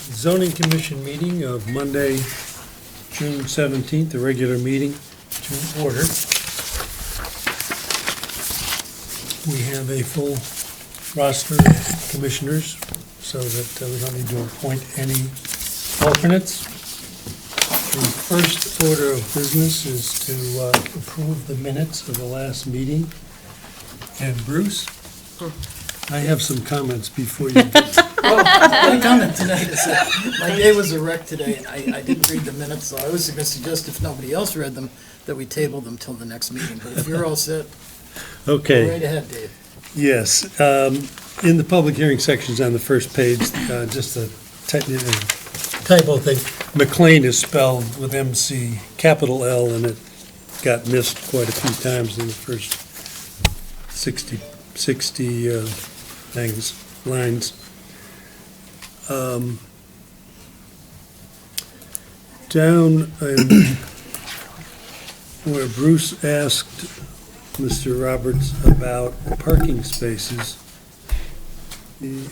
zoning commission meeting of Monday, June seventeenth, the regular meeting to order. We have a full roster of commissioners, so that uh, we don't need to appoint any alternates. The first order of business is to uh, approve the minutes of the last meeting. And Bruce, I have some comments before you do. Well, my comment tonight is that my day was a wreck today, and I, I didn't read the minutes, so I was gonna suggest if nobody else read them, that we table them till the next meeting, but if you're all set, go Okay. right ahead, Dave. Yes, um, in the public hearing sections on the first page, uh, just a technical typo thing. McLean is spelled with MC, capital L, and it got missed quite a few times in the first 60, 60 uh, things, lines. Um, Down, in where Bruce asked Mr. Roberts about parking spaces, the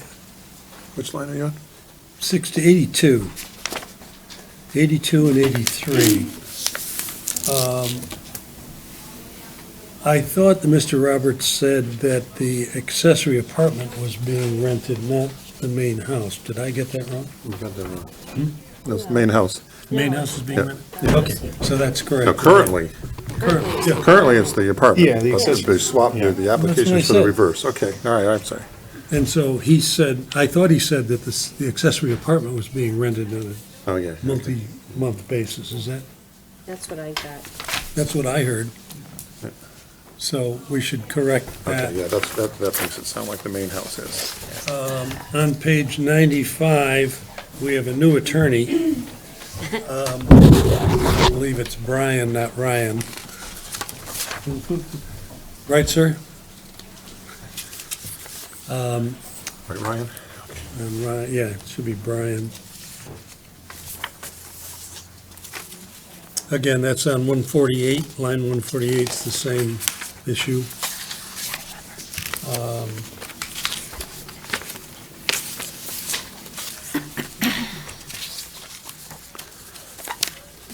Which line are you on? six to 82, 82 and 83. Um, I thought that Mr. Roberts said that the accessory apartment was being rented, not the main house. Did I get that wrong? You got that wrong. Hmm? That's the main house. The main house is being Yeah. rented? Okay, so that's correct. No, currently, Currently, yeah. currently it's the apartment. Yeah, the But accessory. They swapped Yeah. the- the what I applications for the said. reverse. Okay, all right, I'm sorry. And so he said, I thought he said that this- the accessory apartment was being rented on Oh, yeah. a multi-month basis. Is that That's what I got. That's what I heard. So we should correct Okay, that. yeah, that's, that, that makes it sound like the main house is. Um, On page 95, we have a new attorney. Um, I believe it's Brian, not Ryan. Right, sir? Um, Right, Ryan? And Um, Ryan, yeah, it should be Brian. Again, that's on 148, line 148, it's the same issue. Um,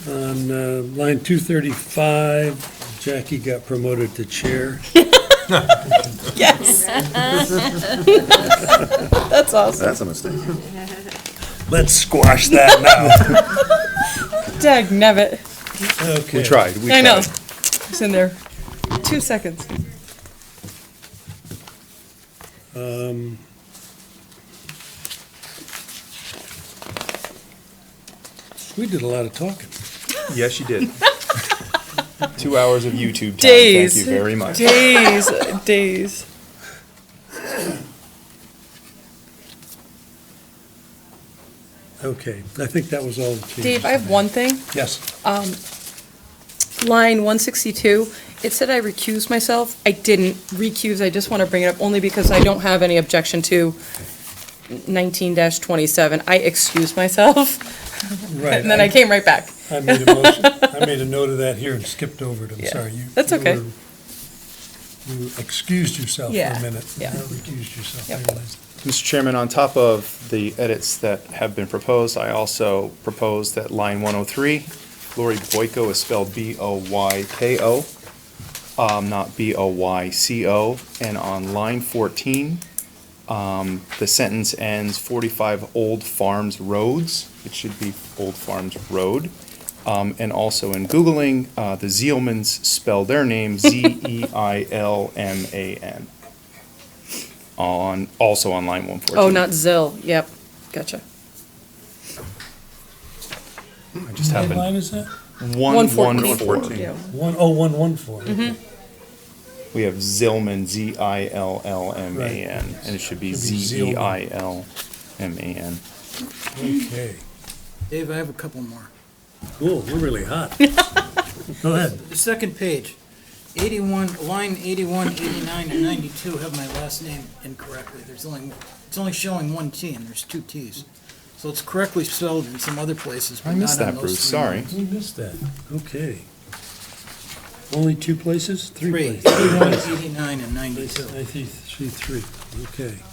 On uh, line 235, Jackie got promoted to chair. Yes. That's awesome. That's a mistake. Let's squash that now. Dag nabbit. Okay. we I know. It's in there. Two seconds. Um, We did a lot of talking. Yes, you did. Two hours of YouTube time. Days. Thank you very much. Days. Days. Okay, I think that was all. the changes. Dave, I have one thing. Yes, Um, line one sixty-two, it said I recused myself. I didn't recuse. I just want to bring it up only because I don't have any objection to nineteen twenty-seven. I excused myself right. and then I came right back. I made a motion, I made a note of that here and skipped over it, I'm Yeah, sorry. You- that's you okay. were- You excused yourself for Yeah, a minute. yeah. You recused yourself, I Yep. realized. Mr. Chairman, on top of the edits that have been proposed, I also propose that line 103, Lori Boyko is spelled B-O-Y-K-O, um, not B-O-Y-C-O. And on line 14, um, the sentence ends 45 Old Farms Roads. It should be Old Farms Road. Um, and also in Googling, uh, the Zeilmans spell their name E Z-E-I-L-M-A-N. On, also on line 114. Oh, not Zill. Yep. Gotcha. I just What happened. line is that? One, one, 114. four. Yeah. One, oh, one, one, four. okay. Mm-hmm. We have Zillman, Z-I-L-L-M-A-N, Right. and it should be E Should be Zillman. Z-E-I-L-M-A-N. Okay, Dave, I have a couple more. cool, we're really hot. Go ahead. The second page, eighty-one, line eighty-one, eighty-nine, and ninety-two have my last name incorrectly, there's only, it's only showing one T, and there's two Ts. So it's correctly spelled in some other places, I but missed not that, on Bruce, those three sorry. lines. We missed that, okay. Only two places? Three Three, places? eighty-one, eighty-nine, and I ninety-two. see, I see three, okay.